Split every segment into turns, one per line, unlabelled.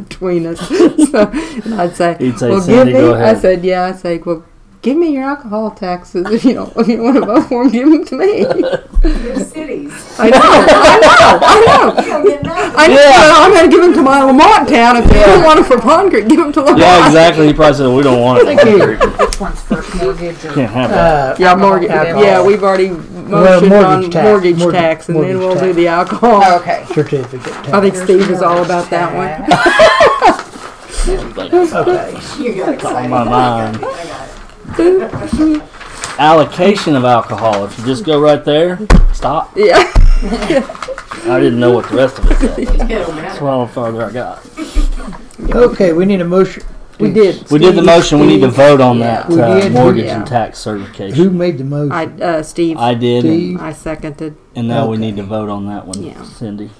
between us. so and I'd say,
He'd say,
"Well,
Cindy,
give me."
go
I
ahead.
said, "Yeah." I would say, "Well, give me your alcohol taxes if you don't if you want to vote for him. Give them to me."
Your cities.
I know, I know, I know.
You don't get nothing.
I know.
Yeah.
Well, I'm going to give them to my Lamont town if they don't want them for Pond Creek. Give them to Lamont.
Yeah, exactly. He probably said, "We don't want it.
Thank you.
This one's first mortgage or
Can't have that."
Uh,
Yeah, mortgage.
Alcohol.
Yeah, we've already motioned on
mortgage tax.
mortgage
Mortgage-
tax, and then
mortgage
we'll do
tax.
the alcohol.
Oh, Okay.
certificate.
I think
There's
Steve is all
mortgage
about Oh, that one.
tax.
Okay.
You got excited.
My mind.
I got it.
Allocation of alcohol. If you just go right there, stop.
Yeah.
I didn't know what the rest of it said.
It don't
That's
matter.
why the farther I got.
Okay, we need a motion.
We did.
We did the
Steve,
motion. We need to
Steve.
vote on
Yeah.
that
We
uh,
did.
mortgage
Yeah.
and tax
Who
certification.
made the motion?
I uh, Steve.
I
I,
did, and,
Steve.
seconded.
and now we
Okay.
need to vote on that one,
Yeah.
Cindy.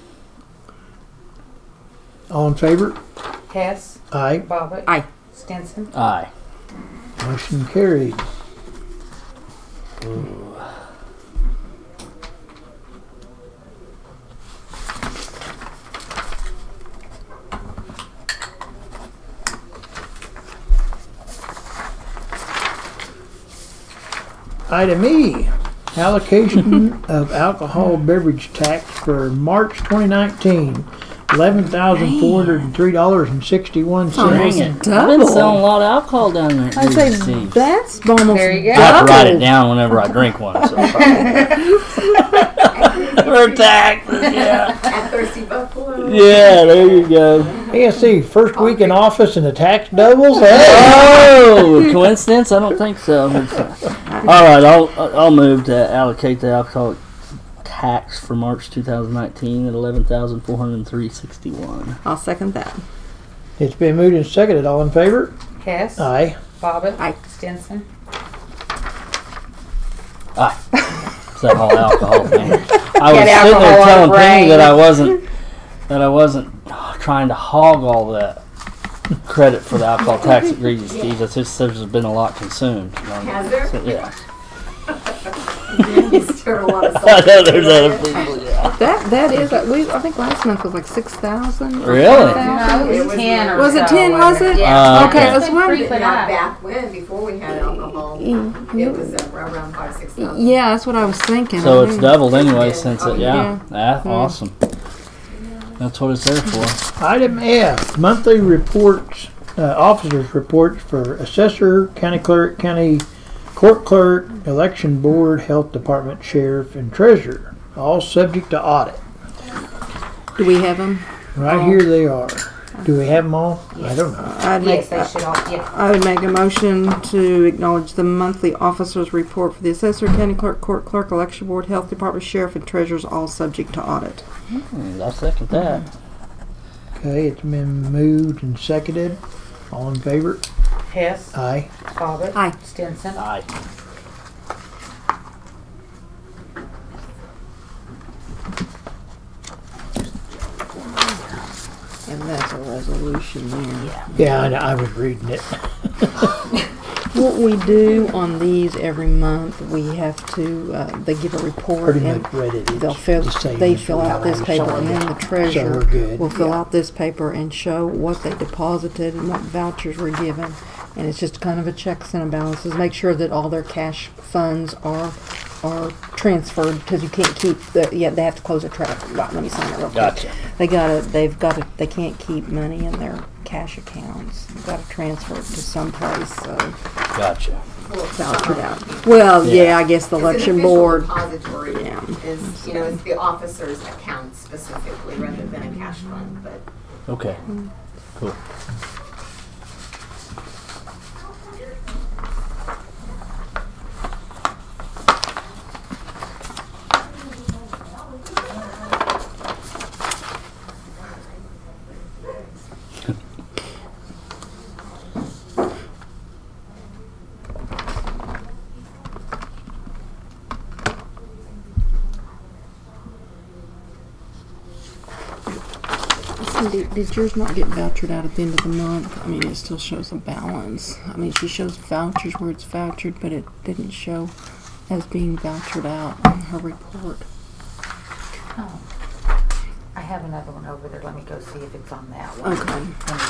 All in favor?
Hess,
Aye.
Bobbitt.
Aye.
Stinson.
Aye.
Motion carried. Item E, allocation of alcohol beverage tax for March 2019, $11,403.61.
Almost
I've been selling a
double.
lot of alcohol down there.
I
Jesus,
say
Steve.
that's almost
There you go.
I have to write it
double.
down whenever I drink one. So For taxes, yeah.
At Thirsty Buffalo.
Yeah, there you go.
ASC, first week in office and the tax doubles? Hey!
Oh, coincidence? I don't think so. All right, I'll I'll move to allocate the alcoholic tax for March 2019 at 11,403.61.
I'll second that.
It's been moved and seconded. All in favor?
Hess.
Aye.
Bobbitt.
Aye.
Stinson.
It's that whole alcohol thing. I was
Get
sitting there
alcohol out
telling
of
Penny
brain.
that I wasn't that I wasn't uh, trying to hog all that credit for the alcohol tax at Greasy Steve's. It's just there's been a lot consumed.
Has there?
So, yeah.
You stirred a lot of
I
salt.
know there's other people. Yeah.
That that is. uh, We I think last month was like six thousand.
Really?
No, it was ten or
Was it
so,
ten? Was
wasn't
it?
Uh,
okay,
okay.
let's
But
wonder.
not back when, before we had alcohol, it was uh, around five, six thousand.
Yeah, that's what I was thinking.
So
I
it's
knew.
doubled anyway since it. Yeah. Ah, awesome. That's what it's there for.
Item F, monthly reports, uh, officers' reports for assessor, county clerk, county court clerk, election board, health department, sheriff, and treasurer, all subject to audit.
Do we have them?
Right here they are. Do we have them all? I don't know.
I'd make
Yes, they should all, yeah.
I would make a motion to acknowledge the monthly officers' report for the assessor, county clerk, court clerk, election board, health department, sheriff, and treasurer's, all subject to audit.
Hmm, I second that.
Okay, it's been moved and seconded. All in favor?
Hess,
Aye.
Bobbitt.
Aye.
Stinson.
Aye.
And that's a resolution there.
Yeah, I, know, I was reading it.
What we do on these every month, we have to, uh, they give a report
Pretty
and
much read it. It's
they'll fill,
the same
they
as
fill
what
out
I
this paper and then the
So we're
treasurer
good.
will fill out this paper and show what they deposited and what vouchers were given. And it's just kind of a checks and balances, make sure that all their cash funds are, are transferred because you can't keep, the yeah, they have to close a trap. Right, Let me sign it real quick.
Gotcha.
They gotta, they've gotta, they can't keep money in their cash accounts. They've gotta transfer it to someplace, so.
Gotcha.
Well, yeah. I guess the
It's an
election
official
board.
Depository
Yeah.
is, you know, it's the officer's account specifically rather than a cash fund, but
Okay. Cool.
Did, did yours not get vouchered out at the end of the month? I mean, it still shows a balance. I mean, she shows vouchers where it's vouchered, but it didn't show as being vouchered out on her report.
I
have another one over there. Let me go see if it's on that one.
Okay.